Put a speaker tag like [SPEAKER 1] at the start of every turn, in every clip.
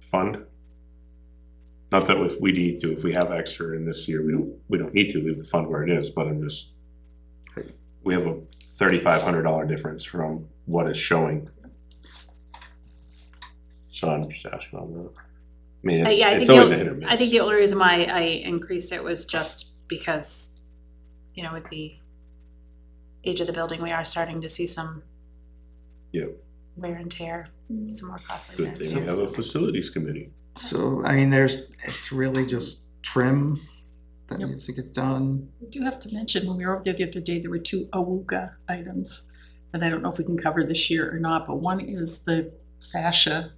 [SPEAKER 1] fund. Not that if we need to, if we have extra in this year, we don't, we don't need to leave the fund where it is, but I'm just. We have a thirty-five hundred dollar difference from what is showing. So I'm just asking on that. I mean,
[SPEAKER 2] Uh, yeah, I
[SPEAKER 1] it's, it's
[SPEAKER 2] think
[SPEAKER 1] always a
[SPEAKER 2] you'll-
[SPEAKER 1] hit or miss.
[SPEAKER 2] I think the only reason why I increased it was just because, you know, with the age of the building, we are starting to see some
[SPEAKER 1] Yeah.
[SPEAKER 2] wear and tear, some more costly
[SPEAKER 1] Good thing we have a
[SPEAKER 2] repairs.
[SPEAKER 1] facilities committee.
[SPEAKER 3] So, I mean, there's, it's really just trim that
[SPEAKER 4] Yep.
[SPEAKER 3] needs to get done.
[SPEAKER 4] We do have to mention, when we were over there the other day, there were two awuga items that I don't know if we can cover this year or not, but one is the fascia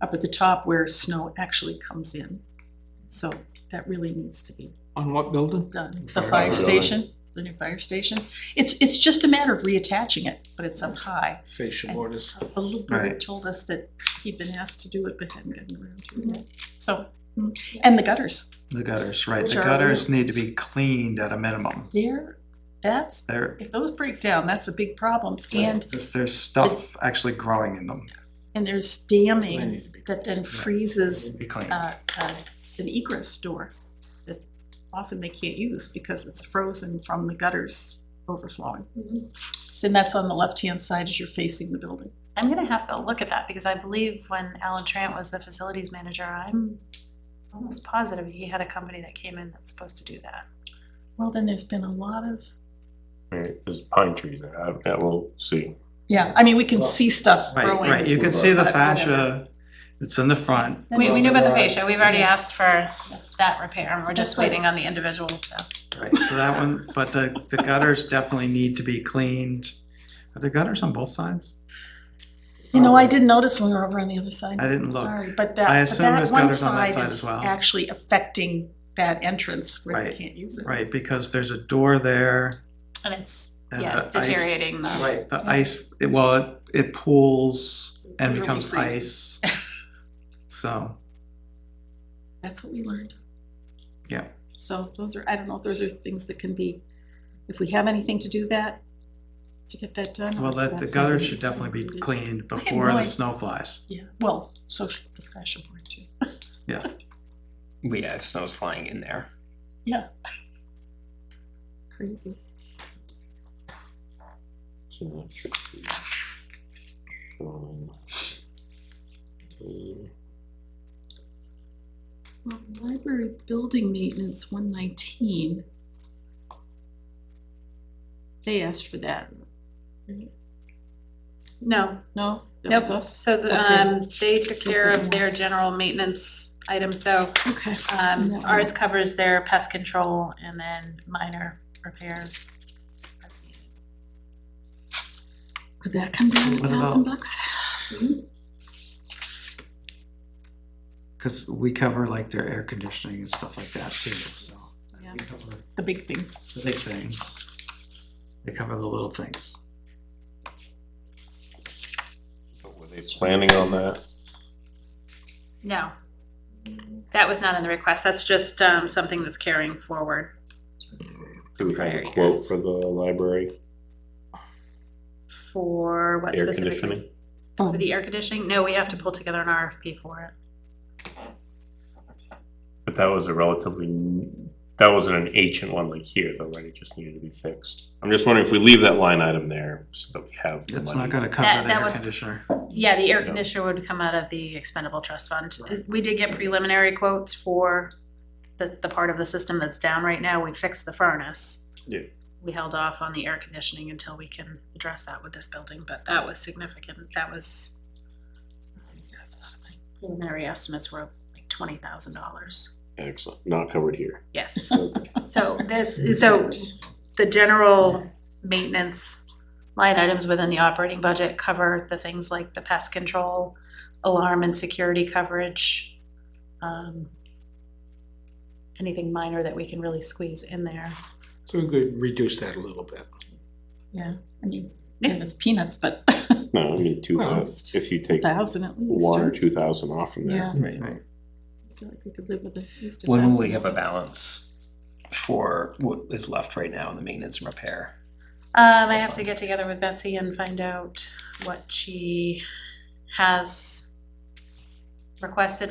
[SPEAKER 4] up at the top where snow actually comes in. So that really needs to be
[SPEAKER 3] On what building?
[SPEAKER 4] done. The
[SPEAKER 3] Fire
[SPEAKER 4] fire
[SPEAKER 3] alarm.
[SPEAKER 4] station, the new fire station, it's, it's just a matter of reattaching it, but it's up high.
[SPEAKER 5] facial artist.
[SPEAKER 4] A little bird
[SPEAKER 3] Right.
[SPEAKER 4] told us that he'd been asked to do it, but hadn't gotten around to it yet. So, mm, and the gutters,
[SPEAKER 3] The gutters, right,
[SPEAKER 4] Which
[SPEAKER 3] the
[SPEAKER 4] are-
[SPEAKER 3] gutters need to be cleaned at a minimum,
[SPEAKER 4] there, that's,
[SPEAKER 3] they're,
[SPEAKER 4] if those break down, that's a big problem. And
[SPEAKER 3] if there's stuff actually growing in them,
[SPEAKER 4] And there's
[SPEAKER 5] They
[SPEAKER 4] damming
[SPEAKER 5] need to be-
[SPEAKER 4] that then
[SPEAKER 3] need to
[SPEAKER 4] freezes
[SPEAKER 3] be cleaned.
[SPEAKER 4] uh, uh, an egress door that often they can't use because it's frozen from the gutters overflowing.
[SPEAKER 3] Mm-hmm.
[SPEAKER 4] So and that's on the left-hand side as you're facing the building.
[SPEAKER 2] I'm gonna have to look at that, because I believe when Alan Trant was the facilities manager, I'm almost positive he had a company that came in that was supposed to do that.
[SPEAKER 4] Well, then there's been a lot of,
[SPEAKER 1] Right, there's pine trees there, I, I will see.
[SPEAKER 4] yeah, I mean, we can see stuff
[SPEAKER 3] Right,
[SPEAKER 4] growing.
[SPEAKER 3] right, you can see the
[SPEAKER 4] But
[SPEAKER 3] fascia, it's in the front,
[SPEAKER 4] And
[SPEAKER 2] We, we knew about the
[SPEAKER 5] Well,
[SPEAKER 2] fascia, we've already asked for that repair, and we're just
[SPEAKER 4] That's right.
[SPEAKER 2] waiting on the individual to.
[SPEAKER 3] right, so that one, but the, the gutters definitely need to be cleaned. Are there gutters on both sides?
[SPEAKER 4] You know, I did notice when we were over on the other side.
[SPEAKER 3] I didn't look.
[SPEAKER 4] Sorry, but
[SPEAKER 3] I
[SPEAKER 4] that, but
[SPEAKER 3] assume
[SPEAKER 4] that
[SPEAKER 3] there's
[SPEAKER 4] one
[SPEAKER 3] gutters on that
[SPEAKER 4] side
[SPEAKER 3] side as
[SPEAKER 4] is
[SPEAKER 3] well.
[SPEAKER 4] actually affecting that entrance where they
[SPEAKER 3] Right,
[SPEAKER 4] can't use it.
[SPEAKER 3] Right, because there's a door there,
[SPEAKER 2] And it's,
[SPEAKER 3] And
[SPEAKER 2] yeah,
[SPEAKER 3] the
[SPEAKER 2] it's
[SPEAKER 3] ice-
[SPEAKER 2] deteriorating the.
[SPEAKER 3] right, the Uh, ice, it- well, it- it pools and
[SPEAKER 4] Literally
[SPEAKER 3] becomes ice.
[SPEAKER 4] freezes.
[SPEAKER 3] So,
[SPEAKER 4] That's what we learned.
[SPEAKER 3] Yeah.
[SPEAKER 4] So those are, I don't know if those are things that can be, if we have anything to do that, to get that done. or
[SPEAKER 3] well,
[SPEAKER 4] if
[SPEAKER 3] that, the
[SPEAKER 4] that's
[SPEAKER 3] gutter
[SPEAKER 4] something
[SPEAKER 3] should
[SPEAKER 4] that's
[SPEAKER 3] definitely be
[SPEAKER 4] included.
[SPEAKER 3] cleaned before
[SPEAKER 4] no
[SPEAKER 3] the
[SPEAKER 4] idea.
[SPEAKER 3] snow flies.
[SPEAKER 4] Yeah, well, so should the fashion board too.
[SPEAKER 6] we have snows flying in there.
[SPEAKER 4] Yeah. Crazy.
[SPEAKER 1] So, um, um,
[SPEAKER 4] Well, library building maintenance, one nineteen. They asked for that. right?
[SPEAKER 2] No,
[SPEAKER 4] No? That
[SPEAKER 2] Nope,
[SPEAKER 4] was us?
[SPEAKER 2] so the,
[SPEAKER 4] Okay.
[SPEAKER 2] um, they took care of their general maintenance item, so,
[SPEAKER 4] Okay.
[SPEAKER 2] um,
[SPEAKER 4] That one.
[SPEAKER 2] ours covers their pest control and then minor repairs. as needed.
[SPEAKER 4] Could that come down to a
[SPEAKER 3] What
[SPEAKER 4] thousand
[SPEAKER 3] about-
[SPEAKER 4] bucks?
[SPEAKER 3] Cause we cover like their air conditioning and stuff like that too, so.
[SPEAKER 4] Yeah,
[SPEAKER 3] We cover
[SPEAKER 4] the big things.
[SPEAKER 3] The big things, they cover the little things.
[SPEAKER 1] Were they planning on that?
[SPEAKER 2] No. That was not in the request, that's just, um, something that's carrying forward.
[SPEAKER 1] Do we have a
[SPEAKER 2] Prior
[SPEAKER 1] quote
[SPEAKER 2] years.
[SPEAKER 1] for the library
[SPEAKER 2] For what
[SPEAKER 1] air
[SPEAKER 2] specifically?
[SPEAKER 1] conditioning?
[SPEAKER 2] For the air conditioning? No, we have to pull together an RFP for it.
[SPEAKER 1] But that was a relatively, n- that wasn't an ancient one like here though, right? It just needed to be fixed. I'm just wondering if we leave that line item there so that we have the
[SPEAKER 3] It's not
[SPEAKER 1] money.
[SPEAKER 3] gonna cover
[SPEAKER 2] That-
[SPEAKER 3] the
[SPEAKER 2] that
[SPEAKER 3] air
[SPEAKER 2] would-
[SPEAKER 3] conditioner.
[SPEAKER 2] Yeah, the air
[SPEAKER 1] Yeah.
[SPEAKER 2] conditioner would come out of the expendable trust fund. We did get preliminary quotes for the, the part of the system that's down right now. We fixed the furnace.
[SPEAKER 1] Yeah.
[SPEAKER 2] We held off on the air conditioning until we can address that with this building, but that was significant. That was that's not my- preliminary estimates were like twenty thousand dollars.
[SPEAKER 1] Excellent, not covered here.
[SPEAKER 2] Yes. So this, so the general maintenance line items within the operating budget cover the things like the pest control, alarm and security coverage. um, Anything minor that we can really squeeze in there.
[SPEAKER 5] So we could reduce that a little bit.
[SPEAKER 4] Yeah, I mean, yeah, it's peanuts, but
[SPEAKER 1] No, I mean, two
[SPEAKER 4] Almost.
[SPEAKER 1] thousand, if you take
[SPEAKER 4] thousand at least.
[SPEAKER 1] one or
[SPEAKER 4] right?
[SPEAKER 1] two thousand off from
[SPEAKER 4] Yeah,
[SPEAKER 1] there.
[SPEAKER 6] Right.
[SPEAKER 4] I feel like we could live with at least a
[SPEAKER 6] When will
[SPEAKER 4] thousand
[SPEAKER 6] we have a
[SPEAKER 4] off.
[SPEAKER 6] balance for what is left right now in the maintenance and repair?
[SPEAKER 2] Um, I have to get together with Betsy and find out what she has requested